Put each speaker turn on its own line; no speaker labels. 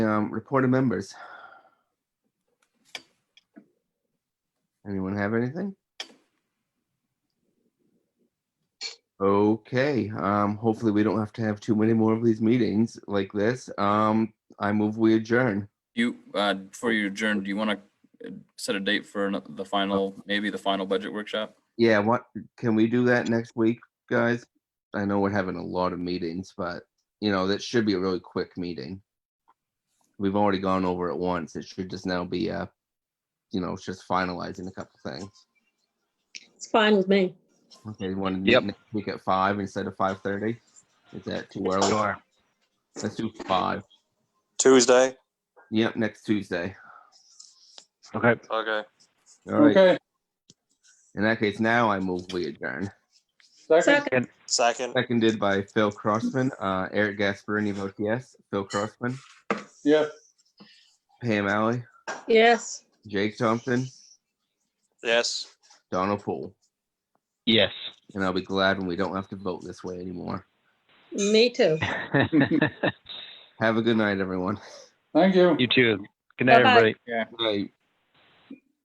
um, report of members. Anyone have anything? Okay, um, hopefully we don't have to have too many more of these meetings like this. Um, I move we adjourn.
You, uh, before you adjourn, do you want to set a date for ano- the final, maybe the final budget workshop?
Yeah, what, can we do that next week, guys? I know we're having a lot of meetings, but you know, that should be a really quick meeting. We've already gone over it once. It should just now be, uh, you know, it's just finalizing a couple things.
It's fine with me.
Okay, you want to meet
Yep.
next week at five instead of five thirty? Is that too early?
Sure.
Let's do five.
Tuesday?
Yep, next Tuesday.
Okay.
Okay.
All right.
Okay,
In that case, now I move we adjourn.
second,
Second,
Second?
Seconded by Phil Crossman, uh, Eric Gasparini votes yes. Phil Crossman,
yeah,
Pam Alley,
yes.
Jake Thompson,
Yes.
Donald Poole.
Yes.
And I'll be glad when we don't have to vote this way anymore.
Me too.
you
Have a good night, everyone.
thank you.
too. Good night,
Bye-bye.
everybody.
Good night.